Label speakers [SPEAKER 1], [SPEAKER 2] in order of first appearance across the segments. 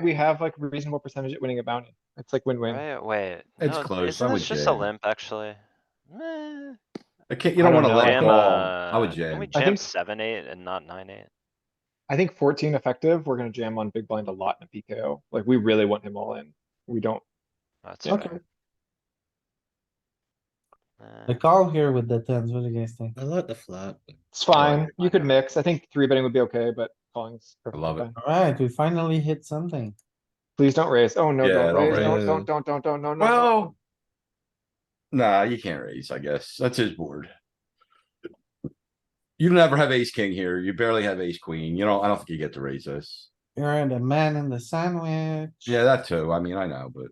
[SPEAKER 1] we have like a reasonable percentage at winning a bounty. It's like win-win.
[SPEAKER 2] Wait, wait.
[SPEAKER 3] It's
[SPEAKER 2] no,
[SPEAKER 3] close,
[SPEAKER 2] Isn't
[SPEAKER 3] I
[SPEAKER 2] this
[SPEAKER 3] would
[SPEAKER 2] just a
[SPEAKER 3] jam.
[SPEAKER 2] limp, actually? Meh.
[SPEAKER 3] Okay, you
[SPEAKER 1] I don't
[SPEAKER 3] don't wanna
[SPEAKER 1] know.
[SPEAKER 3] let it
[SPEAKER 1] Jam,
[SPEAKER 3] go.
[SPEAKER 2] uh,
[SPEAKER 3] I would
[SPEAKER 2] Can we
[SPEAKER 3] jam.
[SPEAKER 1] I
[SPEAKER 2] jam
[SPEAKER 1] think-
[SPEAKER 2] seven, eight and not nine, eight?
[SPEAKER 1] I think fourteen effective, we're gonna jam on big blind a lot in a PKO. Like, we really want him all in. We don't,
[SPEAKER 2] That's
[SPEAKER 1] Okay.
[SPEAKER 2] fair.
[SPEAKER 4] The
[SPEAKER 2] Nah.
[SPEAKER 4] call here with the tens, what do you guys think?
[SPEAKER 5] I like the flat. but-
[SPEAKER 1] it's
[SPEAKER 2] Oh, I
[SPEAKER 1] fine. You
[SPEAKER 2] like
[SPEAKER 1] could
[SPEAKER 2] that.
[SPEAKER 1] mix. I think three betting would be okay, but calling's. perfectly
[SPEAKER 3] love it.
[SPEAKER 1] fine.
[SPEAKER 4] Alright, we finally hit something.
[SPEAKER 1] Please don't raise. Oh, no,
[SPEAKER 3] Yeah,
[SPEAKER 1] don't
[SPEAKER 3] don't
[SPEAKER 1] raise. Don't,
[SPEAKER 5] raise.
[SPEAKER 1] don't, don't, don't, don't, no, no.
[SPEAKER 3] Well. Nah, you can't raise, I guess. That's his board. You never have ace king here. You barely have ace queen. You know, I don't think you get to raise this.
[SPEAKER 4] You're the man in the sandwich.
[SPEAKER 3] Yeah, that too. I mean, I know, but.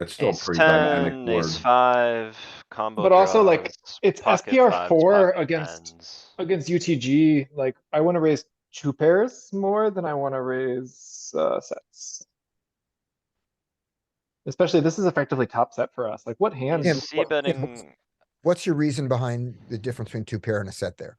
[SPEAKER 3] It's still a
[SPEAKER 2] Ace
[SPEAKER 3] pretty
[SPEAKER 2] ten,
[SPEAKER 3] dynamic board.
[SPEAKER 2] ace five, combo
[SPEAKER 1] But also, like,
[SPEAKER 2] draws,
[SPEAKER 1] it's
[SPEAKER 2] pocket
[SPEAKER 1] SPR
[SPEAKER 2] fives,
[SPEAKER 1] four
[SPEAKER 2] pocket
[SPEAKER 1] against-
[SPEAKER 2] tens.
[SPEAKER 1] Against UTG, like, I wanna raise two pairs more than I wanna raise, uh, sets. Especially, this is effectively top set for us. Like, what hand?
[SPEAKER 2] He's C
[SPEAKER 6] what's-
[SPEAKER 2] betting,
[SPEAKER 6] What's your reason behind the difference between two pair and a set there?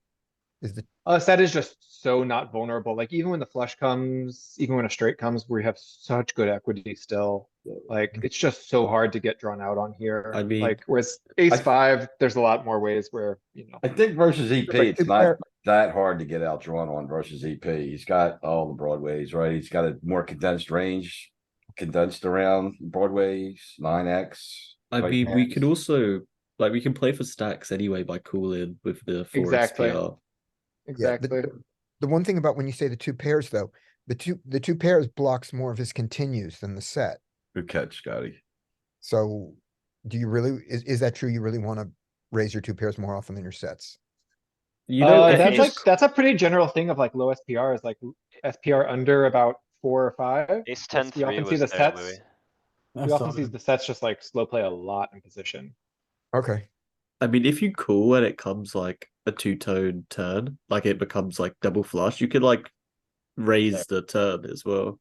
[SPEAKER 6] Is the,
[SPEAKER 1] Uh, set is just so not vulnerable. Like even when the flush comes, even when a straight comes, we have such good equity still. Like it's just so hard to get drawn out on here.
[SPEAKER 5] I'd be-
[SPEAKER 1] Like whereas ace
[SPEAKER 3] th-
[SPEAKER 1] five, there's a lot more ways where, you know.
[SPEAKER 3] I think versus EP,
[SPEAKER 6] like
[SPEAKER 3] it's
[SPEAKER 6] two
[SPEAKER 3] not
[SPEAKER 6] pair-
[SPEAKER 3] that hard to get outdrawn on versus EP. He's got all the broadways, right? He's got a more condensed range. Condensed around broadways, nine X.
[SPEAKER 5] I mean, we could also like we can play for stacks anyway by cooling with the four
[SPEAKER 1] Exactly.
[SPEAKER 5] SPR.
[SPEAKER 6] yeah, the-
[SPEAKER 1] Exactly.
[SPEAKER 6] The one thing about when you say the two pairs though, the two, the two pairs blocks more of his continues than the set.
[SPEAKER 3] Good catch, Scotty.
[SPEAKER 6] So do you really, is, is that true? You really want to raise your two pairs more often than your sets?
[SPEAKER 5] You know,
[SPEAKER 1] Uh,
[SPEAKER 5] if
[SPEAKER 1] that's
[SPEAKER 5] you
[SPEAKER 1] like,
[SPEAKER 5] just-
[SPEAKER 1] that's a pretty general thing of like low SPR is like SPR under about four or five.
[SPEAKER 2] ace ten
[SPEAKER 1] you often
[SPEAKER 2] three
[SPEAKER 1] see
[SPEAKER 2] was
[SPEAKER 1] the
[SPEAKER 2] there,
[SPEAKER 1] sets.
[SPEAKER 2] Louis.
[SPEAKER 4] I
[SPEAKER 1] We
[SPEAKER 4] saw
[SPEAKER 1] often see
[SPEAKER 4] that.
[SPEAKER 1] the sets just like slow play a lot in position.
[SPEAKER 6] Okay,
[SPEAKER 5] I mean, if you cool and it comes like a two tone turn, like it becomes like double flush, you could like raise the turn as well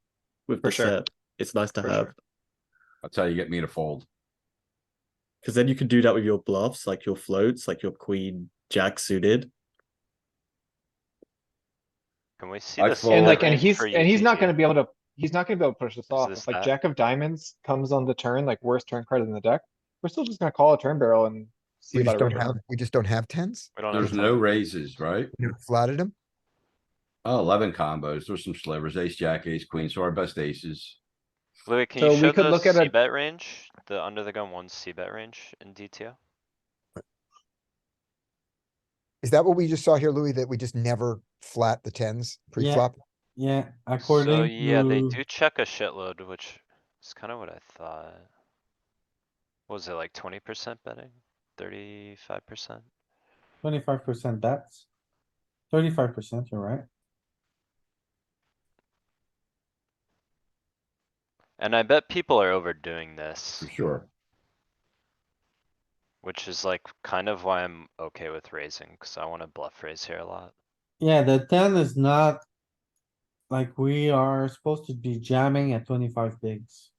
[SPEAKER 5] with
[SPEAKER 1] For
[SPEAKER 5] the
[SPEAKER 1] sure.
[SPEAKER 5] set. It's nice to
[SPEAKER 1] For
[SPEAKER 5] have
[SPEAKER 1] sure.
[SPEAKER 3] That's how you get me to fold.
[SPEAKER 5] because then you can do that with your bluffs, like your floats, like your queen jack suited.
[SPEAKER 2] Can we see
[SPEAKER 3] I
[SPEAKER 2] the?
[SPEAKER 3] fold.
[SPEAKER 2] split
[SPEAKER 1] And like, and
[SPEAKER 2] range
[SPEAKER 1] he's,
[SPEAKER 2] for
[SPEAKER 1] and he's not
[SPEAKER 2] UTG?
[SPEAKER 1] gonna be able to, he's not gonna be able to push this off.
[SPEAKER 2] this
[SPEAKER 1] If like
[SPEAKER 2] that?
[SPEAKER 1] jack of diamonds comes on the turn, like worst turn card in the deck, we're still just gonna call a turn barrel and. see
[SPEAKER 6] we
[SPEAKER 1] about
[SPEAKER 6] just
[SPEAKER 1] a
[SPEAKER 6] don't
[SPEAKER 1] river.
[SPEAKER 6] have, we just don't have tens?
[SPEAKER 2] We don't have
[SPEAKER 3] There's
[SPEAKER 2] a
[SPEAKER 3] no
[SPEAKER 2] ton.
[SPEAKER 3] raises, right?
[SPEAKER 6] You Flatted him?
[SPEAKER 3] Oh, Eleven combos. There's some slivers, ace, jack, ace, queen. So our best aces.
[SPEAKER 2] Louis, can
[SPEAKER 1] So
[SPEAKER 2] you
[SPEAKER 1] we
[SPEAKER 2] show
[SPEAKER 1] could
[SPEAKER 2] the
[SPEAKER 1] look at a-
[SPEAKER 2] C bet range, the under the gun one C bet range in DTO?
[SPEAKER 6] Is that what we just saw here, Louis, that we just never flat the tens pre-flop?
[SPEAKER 4] Yeah,
[SPEAKER 2] So
[SPEAKER 4] according
[SPEAKER 2] yeah, they
[SPEAKER 4] to,
[SPEAKER 2] do check a shitload, which is kinda what I thought. What Was it like twenty percent betting? Thirty-five percent?
[SPEAKER 4] twenty-five percent bets. Thirty-five percent, you're right.
[SPEAKER 2] And I bet people are overdoing this,
[SPEAKER 3] For sure.
[SPEAKER 2] which is like kind of why I'm okay with raising, cuz I wanna bluff raise here a lot.
[SPEAKER 4] Yeah, the ten is not. Like, we are supposed to be jamming at twenty-five bigs.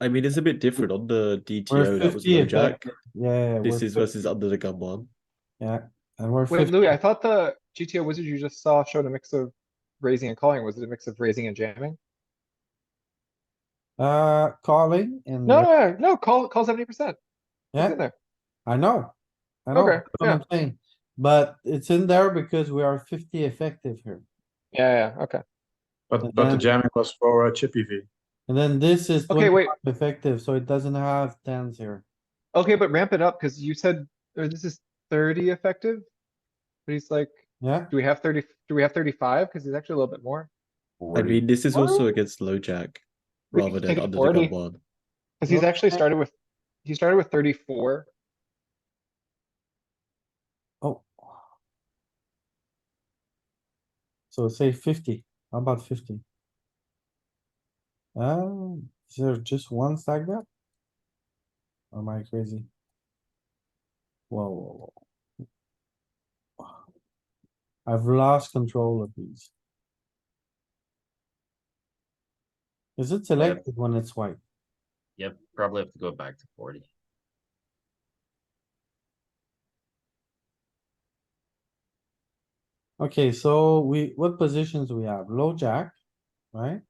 [SPEAKER 5] I mean, it's a bit different on the
[SPEAKER 4] We're
[SPEAKER 5] DTO. That was
[SPEAKER 4] 50
[SPEAKER 5] low
[SPEAKER 4] if that-
[SPEAKER 5] jack.
[SPEAKER 4] Yeah. we're
[SPEAKER 5] This is
[SPEAKER 4] 50,
[SPEAKER 5] versus under the gun one.
[SPEAKER 4] And we're
[SPEAKER 1] Wait, Louis, I
[SPEAKER 4] fifty,
[SPEAKER 1] thought the GTO wizard you just saw showed a mix of raising and calling. Was it a mix of raising and jamming?
[SPEAKER 4] uh, calling and.
[SPEAKER 1] No, no, no, no, call, call seventy percent. It's
[SPEAKER 4] Yeah.
[SPEAKER 1] in there.
[SPEAKER 4] I know. I know,
[SPEAKER 1] Okay,
[SPEAKER 4] that's what I'm saying, but it's in there because we are fifty effective here.
[SPEAKER 1] Yeah, yeah, okay.
[SPEAKER 4] And
[SPEAKER 7] But, but the
[SPEAKER 4] then-
[SPEAKER 7] jamming was for uh, Chippy V.
[SPEAKER 4] And then this is
[SPEAKER 1] Okay, wait.
[SPEAKER 4] 25 effective, so it doesn't have tens here.
[SPEAKER 1] Okay, but ramp it up, cuz you said, or this is thirty effective? But he's like,
[SPEAKER 4] Yeah,
[SPEAKER 1] do we have thirty, do we have thirty-five? Cuz he's actually a little bit more.
[SPEAKER 5] I
[SPEAKER 3] 40.
[SPEAKER 5] mean, this is also
[SPEAKER 1] Well,
[SPEAKER 5] against low jack
[SPEAKER 1] we could
[SPEAKER 5] rather
[SPEAKER 1] take
[SPEAKER 5] than
[SPEAKER 1] it
[SPEAKER 5] under
[SPEAKER 1] 40.
[SPEAKER 5] the gun one.
[SPEAKER 1] Cuz he's
[SPEAKER 4] Well,
[SPEAKER 1] actually
[SPEAKER 4] I-
[SPEAKER 1] started with, he started with thirty-four.
[SPEAKER 4] oh. So say fifty, how about fifty? Um, is there just one stack there? Or Am I crazy? Whoa, whoa, whoa. I've lost control of these. Is it selected when it's white?
[SPEAKER 8] Yep, probably have to go back to forty.
[SPEAKER 4] Okay, so we, what positions we have? Low jack, right?